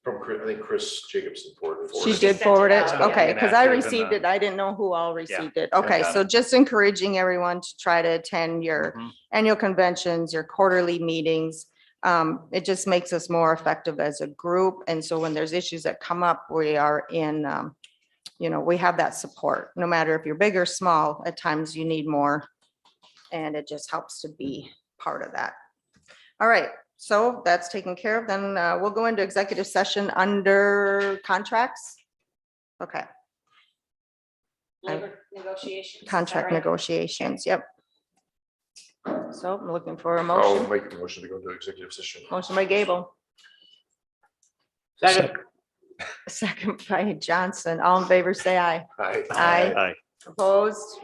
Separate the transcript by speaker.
Speaker 1: Chris- I think Chris Jacobson forwarded.
Speaker 2: She
Speaker 1: forwarded
Speaker 2: did
Speaker 1: it.
Speaker 2: forward it,
Speaker 3: out.
Speaker 1: Yeah,
Speaker 2: okay,
Speaker 3: and
Speaker 2: because
Speaker 3: that
Speaker 2: I
Speaker 3: could've been
Speaker 2: received
Speaker 3: the-
Speaker 2: it, I didn't know who all received it, okay,
Speaker 3: got
Speaker 2: so just encouraging everyone to try to attend your
Speaker 3: Mhm.
Speaker 2: annual conventions, your quarterly meetings. Um, it just makes us more effective as a group, and so when there's issues that come up, we are in, um, you know, we have that support, no matter if you're big or small, at times you need more. And it just helps to be part of that. All right, so that's taken care of, then, uh, we'll go into executive session under contracts. Okay, I-
Speaker 4: Labor negotiations. is that
Speaker 2: contract
Speaker 4: right?
Speaker 2: negotiations, yep. So I'm looking for a
Speaker 1: I'll
Speaker 2: motion,
Speaker 1: make the motion to go into executive session.
Speaker 2: motion by Gable,
Speaker 3: Second.
Speaker 2: second by Johnson, all in favor, say aye.
Speaker 1: Aye.
Speaker 2: Aye.
Speaker 3: Aye.
Speaker 2: Opposed,